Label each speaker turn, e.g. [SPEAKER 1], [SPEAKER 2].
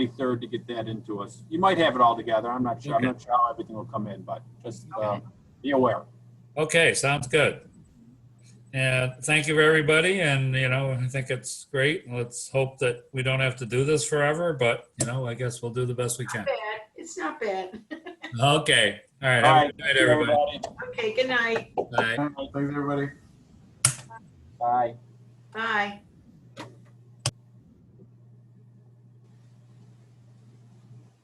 [SPEAKER 1] 23rd to get that into us. You might have it all together. I'm not sure. I'm
[SPEAKER 2] Okay.
[SPEAKER 1] not sure how everything will come in, but just uh,
[SPEAKER 3] Okay.
[SPEAKER 1] be aware.
[SPEAKER 2] Okay, sounds good. And thank you, everybody. And, you know, I think it's great. Let's hope that we don't have to do this forever, but, you know, I guess we'll do the best we can.
[SPEAKER 3] Bad. It's not bad.
[SPEAKER 2] Okay, all
[SPEAKER 1] All
[SPEAKER 2] right. Have a
[SPEAKER 1] right.
[SPEAKER 2] good night, everybody.
[SPEAKER 3] Okay, good night.
[SPEAKER 2] Bye.
[SPEAKER 4] Thanks, everybody.
[SPEAKER 1] Bye.
[SPEAKER 3] Bye.